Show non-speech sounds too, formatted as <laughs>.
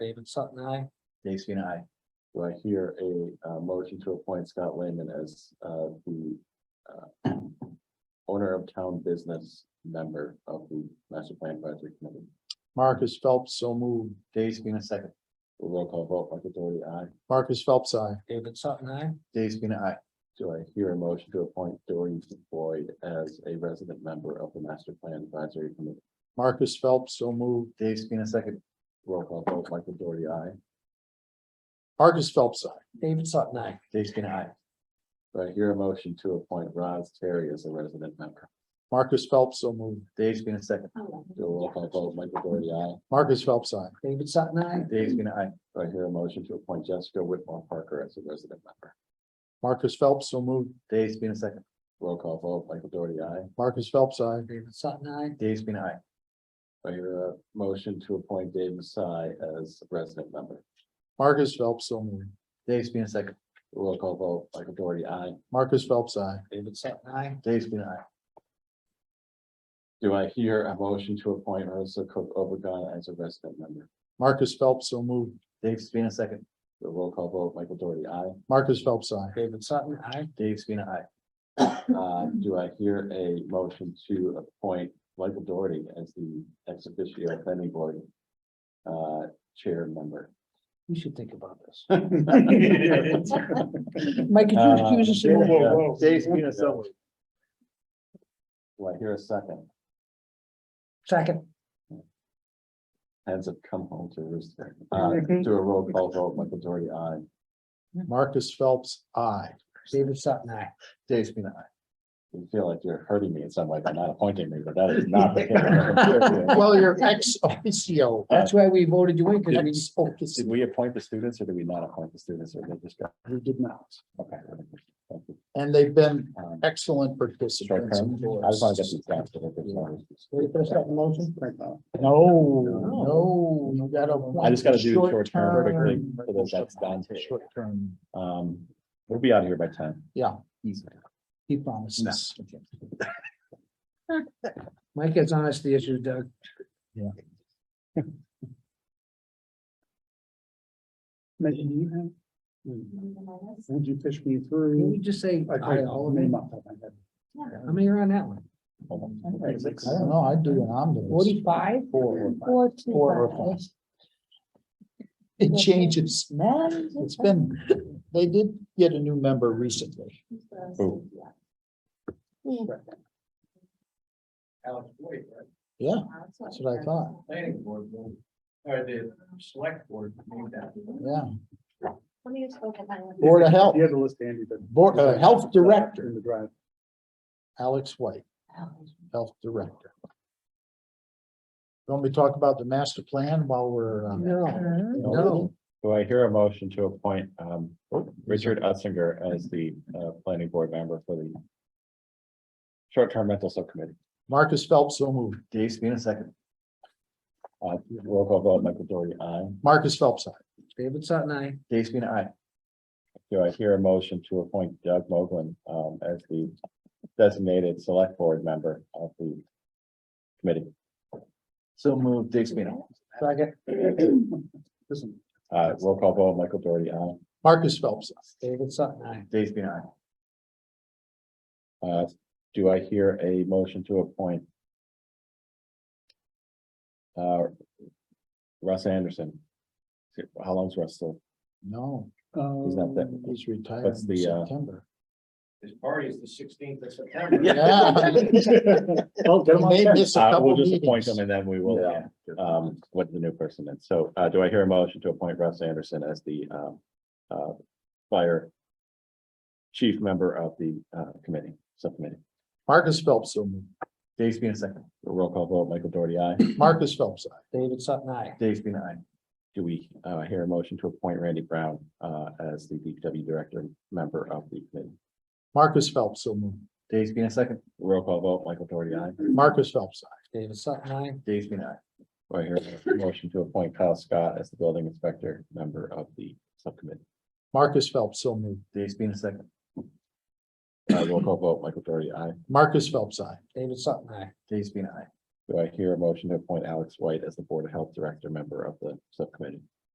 David Sutton, I. Dave Spina, aye. Do I hear a uh, motion to appoint Scott Lehman as uh, the uh, owner of town business member of the master plan advisory committee? Marcus Phelps, so moved. Dave Spina, second. Roll call vote, Michael Doherty, aye. Marcus Phelps, I. David Sutton, I. Dave Spina, aye. Do I hear a motion to appoint Doherty Boyd as a resident member of the master plan advisory committee? Marcus Phelps, so moved. Dave Spina, second. Roll call vote, Michael Doherty, aye. Marcus Phelps, I. David Sutton, I. Dave Spina, aye. Do I hear a motion to appoint Roz Terry as a resident member? Marcus Phelps, so moved. Dave Spina, second. Do a roll call vote, Michael Doherty, aye. Marcus Phelps, I. David Sutton, I. Dave Spina, aye. Do I hear a motion to appoint Jessica Whitmore Parker as a resident member? Marcus Phelps, so moved. Dave Spina, second. Roll call vote, Michael Doherty, aye. Marcus Phelps, I. David Sutton, I. Dave Spina, aye. I hear a uh, motion to appoint David Sy as resident member. Marcus Phelps, so moved. Dave Spina, second. Roll call vote, Michael Doherty, aye. Marcus Phelps, I. David Sutton, I. Dave Spina, aye. Do I hear a motion to appoint Ursula Cook Obregon as a resident member? Marcus Phelps, so moved. Dave Spina, second. The roll call vote, Michael Doherty, aye. Marcus Phelps, I. David Sutton, I. Dave Spina, aye. Uh, do I hear a motion to appoint Michael Doherty as the ex officio planning board? Uh, chair member? You should think about <laughs> this. Do Mike, could you Uh, recuse Whoa, yourself? whoa, whoa. Dave Spina, so moved. I hear a second? Second, Hands have come home to roost. Uh, do a roll call vote, Michael Doherty, aye. Marcus Phelps, I. David Sutton, I. Dave Spina, aye. You feel like you're hurting me in some way by not appointing me, but that is not. the case. Well, you're ex officio. That's why we voted you in, because we spoke <laughs> to Did we appoint the students or did we not appoint the students or they just got? We did not. Okay. Thank you. And they've been Um, excellent short participants. term, and I just want to get boards. these guys to look at some- Ready for a second motion? No, no, you gotta. I just gotta do appoint short term vertically, short-term- so that that's done. Short term, Um, we'll be out of here by ten. yeah, Easy. he promises. <laughs> Mike has honesty issues, Doug. Would you fish me Can through? you just say? I aye, can't all all of the name them? off the top of my head. How many are on that one? I don't know, I'd do an omnibus. Forty-five? Four. Four to Four five. or five. It changes. It's been, they did get a new member recently. Oh. Alex Boyd, right? Yeah, that's what I thought. Planning board, will- or the select board. named that. Yeah. Let me just look at that one. Board of Health, You had the list handy, but. Board, uh, Health Director, In the drive. Alex White, Health Director. Don't we talk about the master plan while we're, uh, No, no, no. Do I hear a motion to appoint, um, Richard Utzinger as the, uh, planning board member for the short-term rental subcommittee? Marcus Phelps, so moved. Dave Spina, second. Uh, roll call vote, Michael Doherty, aye. Marcus Phelps, aye. David Sutton, I. Dave Spina, aye. Do I hear a motion to appoint Doug Moglen um as the designated select board member of the committee? So moved. Dave Spina. Second, Listen, Uh, roll call vote, Michael Doherty, aye. Marcus Phelps, aye. David Sutton, I. Dave Spina, aye. Uh, do I hear a motion to appoint uh, Russ Anderson? How long's Russ still? no, Um, He's not that. he's retired That's in the, uh, <laughs> September. His party is the sixteenth of September. <laughs> Yeah. Well, get him We on may that. miss a Uh, we'll couple just appoint him meetings. and then we will, Yeah. um, what the new person is. So, uh, do I hear a motion to appoint Russ Anderson as the, um, uh, fire chief member of the, uh, committee, subcommittee? Marcus Phelps, so moved. Dave Spina, second. Roll call vote, Michael Doherty, aye. Marcus Phelps, aye. David Sutton, I. Dave Spina, aye. Do we, uh, hear a motion to appoint Randy Brown, uh, as the DPW director, member of the committee? Marcus Phelps, so moved. Dave Spina, second. Roll call vote, Michael Doherty, aye. Marcus Phelps, aye. David Sutton, I. Dave Spina, aye. Do I hear a motion to appoint Kyle Scott as the building inspector, member of the subcommittee? Marcus Phelps, so moved. Dave Spina, second. Uh, roll call vote, Michael Doherty, aye. Marcus Phelps, aye. David Sutton, I. Dave Spina, aye. Do I hear a motion to appoint Alex White as the Board of Health Director, member of the subcommittee?